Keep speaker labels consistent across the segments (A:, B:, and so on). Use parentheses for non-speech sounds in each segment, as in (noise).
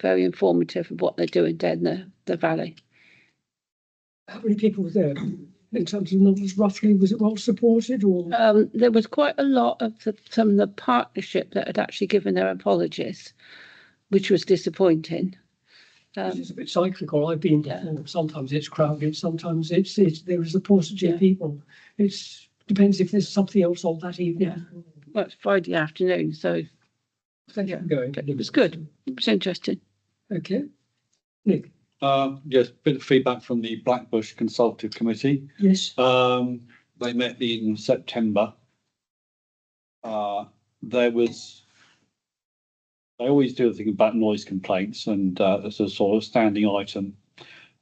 A: very informative of what they're doing down the, the valley.
B: How many people were there in terms of numbers roughly? Was it well supported or?
A: Um, there was quite a lot of the, some of the partnership that had actually given their apologies, which was disappointing.
B: It's
A: Um,
B: just a bit cyclical. I've been
A: Yeah.
B: before. Sometimes it's crowded, sometimes it's, it's, there is a paucity
A: Yeah.
B: of people. It's, depends if there's something else on that evening.
A: well, it's Friday afternoon, so
B: Thank you for going.
A: it was good. It was interesting.
B: Okay. Nick,
C: Uh, yes, bit of feedback from the Blackbush Consultative Committee.
B: yes,
C: Um, they met in September. Uh, there was, they always do a thing about noise complaints and, uh, it's a sort of standing item.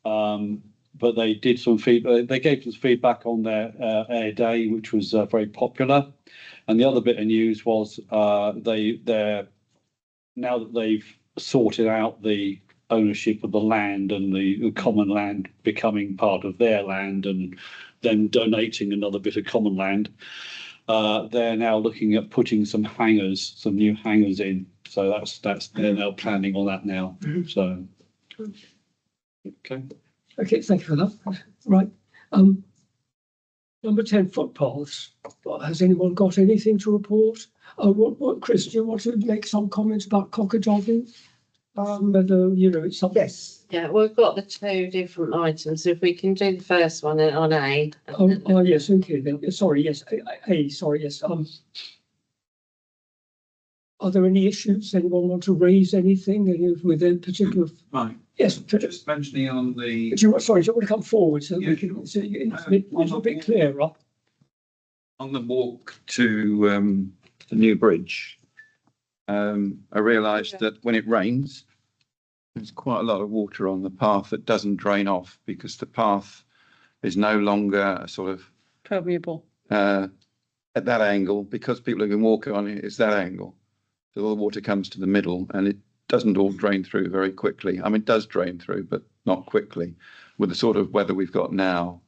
C: Um, but they did some feedback, they gave us feedback on their, uh, air day, which was, uh, very popular. And the other bit of news was, uh, they, they're, now that they've sorted out the ownership of the land and the common land becoming part of their land and them donating another bit of common land. Uh, they're now looking at putting some hangars, some new hangars in. So that's that's they're now planning on that now.
B: Mhm.
C: So okay.
B: okay, thank you for that. Right, um. Number ten footpaths. Well, Has anyone got anything to report? Uh, what, what, Chris, do you want to make some comments about cockadogging? Um, whether, you know, it's something.
D: Yes, yeah, we've got the two different items. If we can do the first one in- on A.
B: Oh, oh, yes, okay, then, yeah, sorry, yes, I- I- hey, sorry, yes, um. Are there any issues? Anyone want to raise anything Any of- with a particular,
E: Right,
B: yes,
E: so
B: do
E: just mentioning on the,
B: you, want- sorry, do you want to come forward so we
E: Yeah,
B: can,
E: sure.
B: so you- it's a
E: Um,
B: bit-
E: I'm
B: it's a
E: not-
B: bit
E: Uh,
B: clearer?
E: on the walk to um the new bridge. Um, I realised
D: Yeah.
E: that when it rains, there's quite a lot of water on the path that doesn't drain off because the path is no longer a sort of
A: Permeable.
E: uh at that angle because people have been walking on it, it's that angle. So all the water comes to the middle and it doesn't all drain through very quickly. I mean, it does drain through, but not quickly. With the sort of weather we've got now,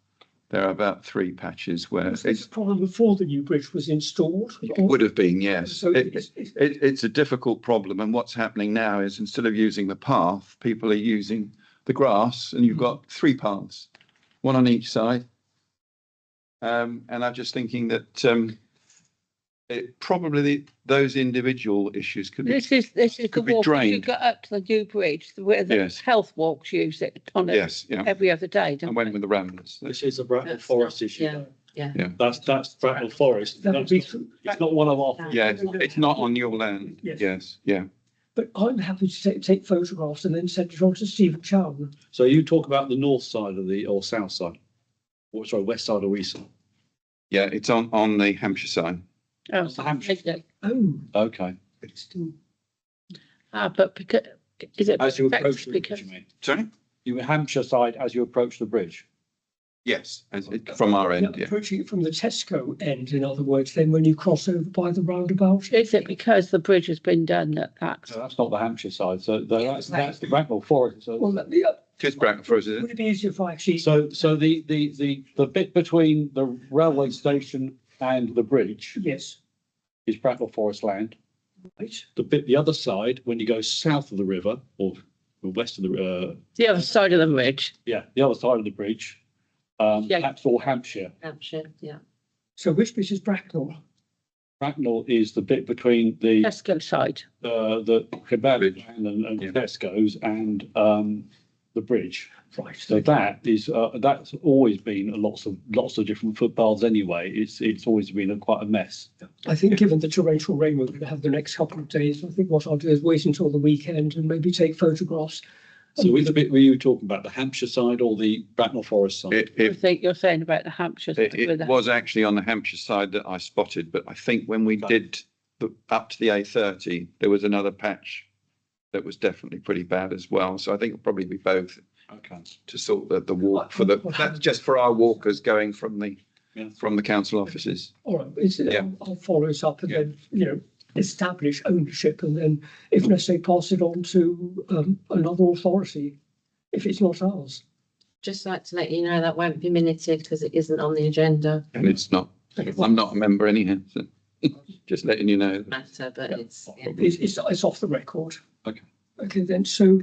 E: there are about three patches where
B: Was this
E: it's
B: a problem before the new bridge was installed?
E: It
B: or-
E: would have been, yes.
B: So
E: It,
B: it's, it's-
E: it, it's a difficult problem. And what's happening now is instead of using the path, people are using the grass and you've
B: Mm.
E: got three paths, one on each side. Um, and I'm just thinking that, um, it probably those individual issues could be,
A: This is, this is the
E: Could be
A: walk, if you
E: drained.
A: go up to the new bridge, where the
E: Yes.
A: health walks use it on it
E: yes, yeah.
A: every other day,
E: I
A: don't
E: went
A: they?
E: with the ramblers.
C: This is a Bracknell
D: That's
C: Forest
D: not-
C: issue.
D: yeah.
C: though.
D: Yeah.
E: Yeah.
C: That's that's Bracknell Forest.
B: that would
C: That's
B: be,
C: not- It's not one of our.
D: That-
E: Yeah, it's- it's not on your land.
B: Yes.
E: Yes, yeah.
B: but I'm happy to take, take photographs and then send it on to Stephen Chown.
C: So you talk about the north side of the or south side, or sorry, west side or east side.
E: Yeah, it's on, on the Hampshire side.
A: Oh,
C: It's the Hampshire.
A: okay.
B: Oh,
C: Okay.
B: it's still,
A: Ah, but because, is it?
C: As you
A: that's
C: approach the bridge,
A: because-
C: you mean?
E: Sorry?
C: You were Hampshire side as you approach the bridge.
E: Yes, as- it- from our
B: yeah,
E: end, yeah.
B: approaching it from the Tesco end, in other words, then when you cross over by the roundabout.
A: Is it because the bridge has been done that that's?
C: So that's not the Hampshire side. So the- that's
D: like-
C: that's the Bracknell Forest. So
B: Well, let me, uh,
E: Just Bracknell Forest, is it?
B: Would it be easier if I actually,
C: So, so the, the, the, the bit between the railway station and the bridge
B: yes,
C: is Bracknell Forest land.
B: right,
C: The bit, the other side, when you go south of the river or west of the, uh,
A: The other side of the ridge.
C: yeah, the other side of the bridge, um,
A: Yeah.
C: that's all Hampshire.
D: Hampshire, yeah.
B: so which bit is Bracknell?
C: Bracknell is the bit between the,
A: Tesco side.
C: uh, the kebab
E: Bridge.
C: and, and
E: Yeah.
C: Tesco's and, um, the bridge.
B: Right,
C: So
B: so
C: that is, uh, that's always been lots of, lots of different footpaths anyway. It's, it's always been a quite a mess.
B: I think given the torrential rain we're going to have the next couple of days, I think what I'll do is wait until the weekend and maybe take photographs.
C: So which bit were you talking about, the Hampshire side or the Bracknell Forest side?
E: It,
A: I
E: it
A: think you're saying about the Hampshire. side
E: It,
A: with the-
E: it was actually on the Hampshire side that I spotted, but I think when we
C: Right.
E: did the, up to the A thirty, there was another patch that was definitely pretty bad as well. So I think it'll probably be both
C: Okay.
E: to sort the, the walk for the, that's just for our walkers going from the,
C: Yeah.
E: from the council offices.
B: All right, it's,
E: Yeah.
B: I'll- I'll follow it up and
E: Yeah.
B: then, you know, establish ownership and then if necessary, pass it on to um, another authority if it's not ours.
D: Just like to let you know that won't be minuted because it isn't on the agenda
E: And it's not, I'm not a member anyhow, so (laughs) just letting you know.
D: matter, but it's. yeah.
B: It's, it's, it's off the record.
E: Okay.
B: Okay, then, so